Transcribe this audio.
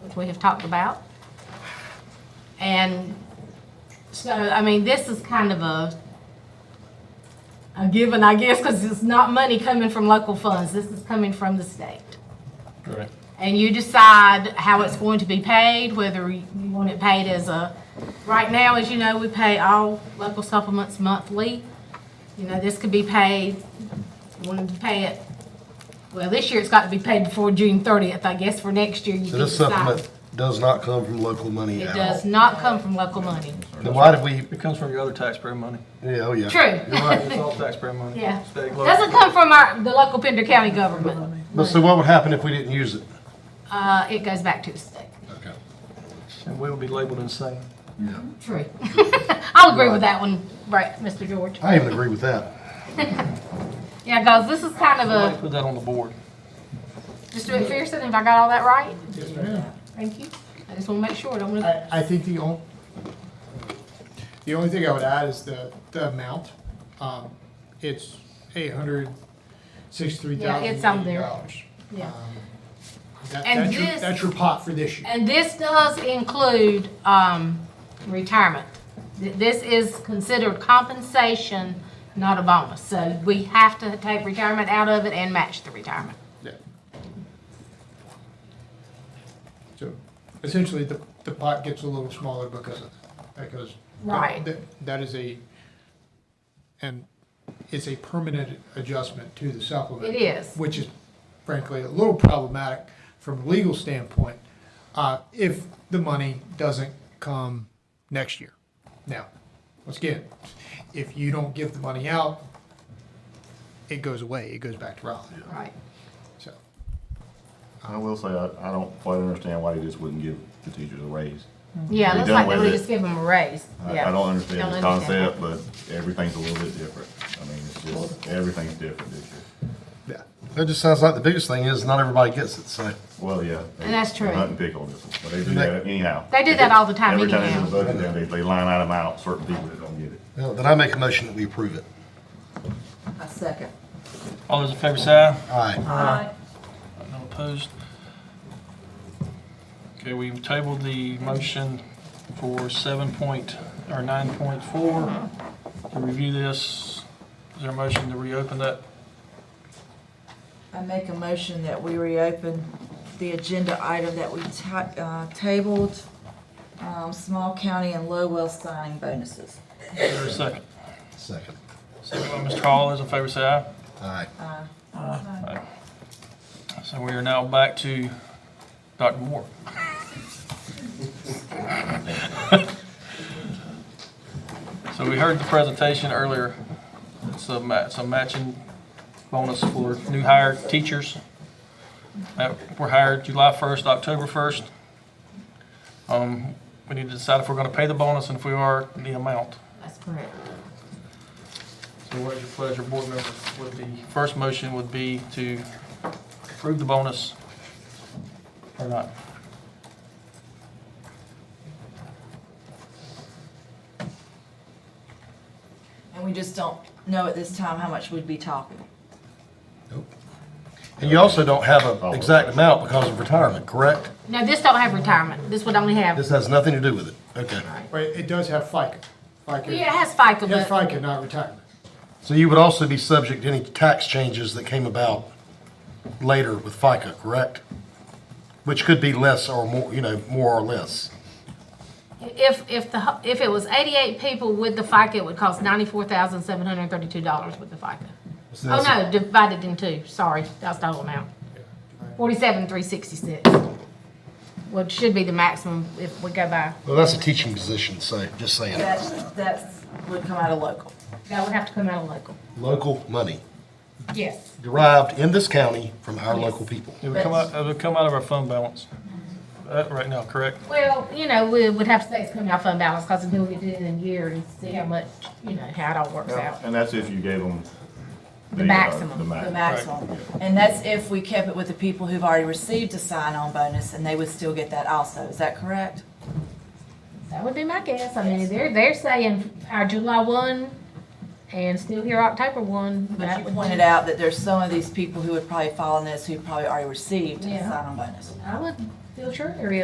which we have talked about. And so, I mean, this is kind of a, a given, I guess, because it's not money coming from local funds. This is coming from the state. Correct. and you decide how it's going to be paid, whether you want it paid as a, right now, as you know, we pay all local supplements monthly. You know, this could be paid, wanted to pay it, well, this year it's got to be paid before June thirtieth, I guess, for next year. you So can this decide. supplement does not come from local money It at does all. not come from local money. Then why did we, It comes from your other taxpayer money. yeah, oh yeah. True. You're right. It's all taxpayer money. Yeah. State, local. Doesn't come from our, the local Pender County government. But so what would happen if we didn't use it? Uh, it goes back to the state. Okay. And we will be labeled insane. True. I'll agree with that one, right, Mr. George. I even agree with that. Yeah, guys, this is kind of a. Somebody Put that on the board. Just do it McPherson, if I got all that right? Thank you. I just want to make sure, don't want to, I, I think the only, the only thing I would add is the, the amount. Um, It's eight hundred sixty-three thousand. Um, Yeah, it's on there. yeah. That, And that's your, this- that's your pot for this year. And this does include, um, retirement. Th- This is considered compensation, not a bonus. So we have to take retirement out of it and match the retirement. Yeah. So essentially, the, the pot gets a little smaller because of, because. Right. that- That is a, and it's a permanent adjustment to the supplement. It is. Which is frankly a little problematic from a legal standpoint, uh, if the money doesn't come next year. Now, once again, if you don't give the money out, it goes away, it goes back to Raleigh, Right. so. I will say, I, I don't quite understand why they just wouldn't give the teachers a raise. Yeah, We looks done like they with would it. just give them a raise. I, Yeah. I don't understand the Don't understand. concept, but everything's a little bit different. I mean, it's just, everything's different this year. Yeah. That just sounds like the biggest thing is not everybody gets it, so. Well, yeah. they- And that's they true. Hunt and pick on this one, but they do that anyhow. They do that all the time Every time they do anyhow. a budget, they- they, they line item out certain people that don't get it. Well, Then I make a motion that we approve it. A second. All those in favor say aye. Aye. No opposed? Okay, we've tabled the motion for seven point, or nine point four. To review this, is there a motion to reopen that? I make a motion that we reopen the agenda item that we ta- uh, tabled, um, small county and Lowell signing bonuses. Is there a second? Second. Second by Mr. Hall, those in favor say aye. Aye. So we are now back to Dr. Moore. So we heard the presentation earlier. It's a ma- it's a matching bonus for new hired teachers that were hired July 1st, October 1st. Um, We need to decide if we're going to pay the bonus and if we are, the amount. That's correct. So what is your pleasure, board members? Would the first motion would be to approve the bonus or not? And we just don't know at this time how much we'd be talking. And you also don't have an exact amount because of retirement, correct? No, this don't have retirement. This would only have, This has nothing to do with it. Okay. Wait, it does have FICA. FICA. yeah, it has FICA, It has but FICA, not retirement. So you would also be subject to any tax changes that came about later with FICA, correct? Which could be less or more, you know, more or less. if, if the, hu- if it was eighty-eight people with the FICA, it would cost ninety-four thousand, seven hundred and thirty-two dollars with the FICA. So Oh, that's- no, divided in two, sorry, that's the whole amount. Forty-seven, three sixty-six. What should be the maximum if we go by, Well, that's a teaching position, so just saying. That's, that's, would come out of local. that would have to come out of local. Local money Yes. derived in this county from our local people. It would come out, it would come out of our fund balance, uh, right now, correct? Well, you know, we would have to say it's coming out of fund balance, cause then we could do it in a year and see how much, you know, how it all works out. And that's if you gave them. The uh, maximum. The The maximum. maximum. And that's if we kept it with the people who've already received a sign-on bonus, and they would still get that also. Is that correct? That would be my guess, I mean, they're, they're saying our July one and still here October one. But that you would pointed be- out that there's some of these people who would probably fall in this who probably already received a Yeah. sign-on bonus. I would feel sure there is.